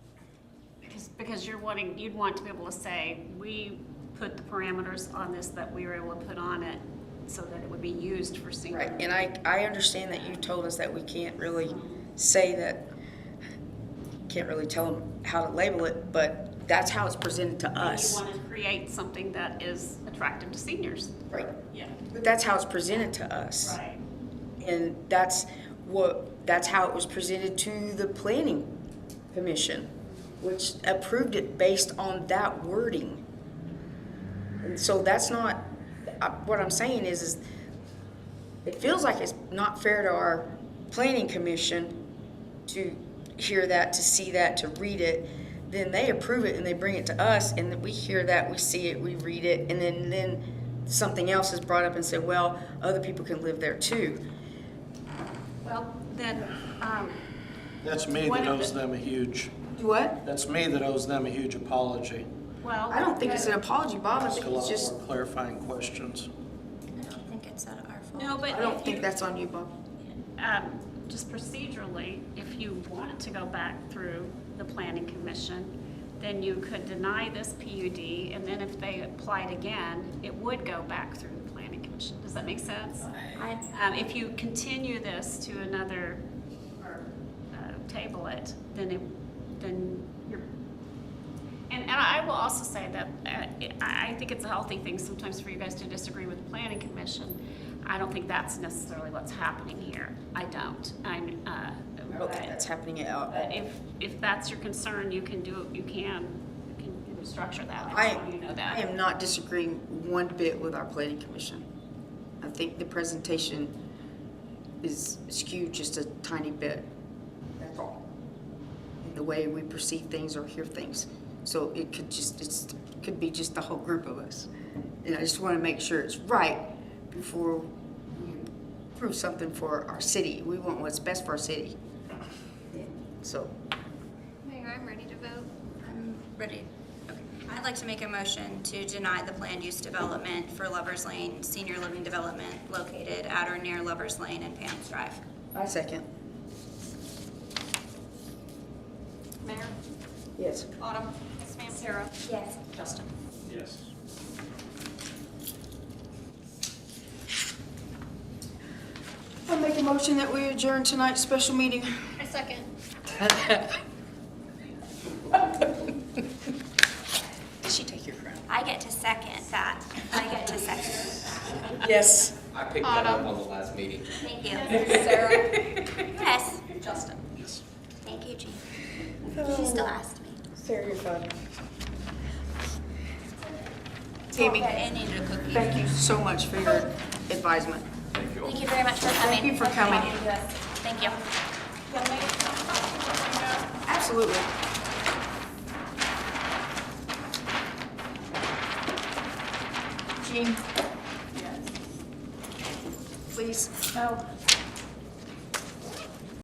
because you're wanting, you'd want to be able to say, we put the parameters on this that we were able to put on it so that it would be used for senior. Right, and I, I understand that you told us that we can't really say that, can't really tell them how to label it, but that's how it's presented to You us. want to create something that is attractive to seniors. Right, Yeah. but that's how it's presented to us. Right. And that's what, that's how it was presented to the planning commission, which approved it based on that wording. And so that's not, I- what I'm saying is, is it feels like it's not fair to our planning commission to hear that, to see that, to read it. Then they approve it and they bring it to us and then we hear that, we see it, we read it, and then, then something else is brought up and said, well, other people can live there too. Well, then, um, That's me One that of owes the- them a huge, What? that's me that owes them a huge apology. well. I don't think it's an apology, Bob. I Ask think it's a lot just, more clarifying questions. I don't think it's that our fault. No, but I don't if think you- that's on you, Bob. um, just procedurally, if you want to go back through the planning commission, then you could deny this PUD, and then if they applied again, it would go back through the planning commission. Does that make sense? I, Um, if you continue this to another, or, uh, table it, then it, then you're, and, and I will also say that, uh, I, I think it's a healthy thing sometimes for you guys to disagree with the planning commission. I don't think that's necessarily what's happening here, I don't, I'm, uh. I don't think that's happening at all. But if, if that's your concern, you can do, you can, you can you can structure that, I I, just want you to know that. I am not disagreeing one bit with our planning commission. I think the presentation is skewed just a tiny bit. That's all. And The way we perceive things or hear things. So it could just, it's, could be just the whole group of us. And I just want to make sure it's right before we approve something for our city. We want what's best for our city. So, Mayor, I'm ready to vote. I'm ready. Okay. I'd like to make a motion to deny the planned use development for Lovers Lane Senior Living Development located at or near Lovers Lane and Pam's Drive. I second. Mayor, Yes. Autumn. Yes, ma'am. Sarah. Yes. Justin. Yes. I make a motion that we adjourn tonight's special meeting. A second. Did she take your crown? I get to second that. I get to second. Yes. I picked that up on the last meeting. Thank you. Sarah? Yes. Justin? Yes. Thank you, Jean. She still asked me. Sarah, you're fun. Tammy, I needed a cookie. thank you so much for your advisement. Thank you very much for coming. Thank you for coming. Thank you. Absolutely. Jean? Yes. Please? No.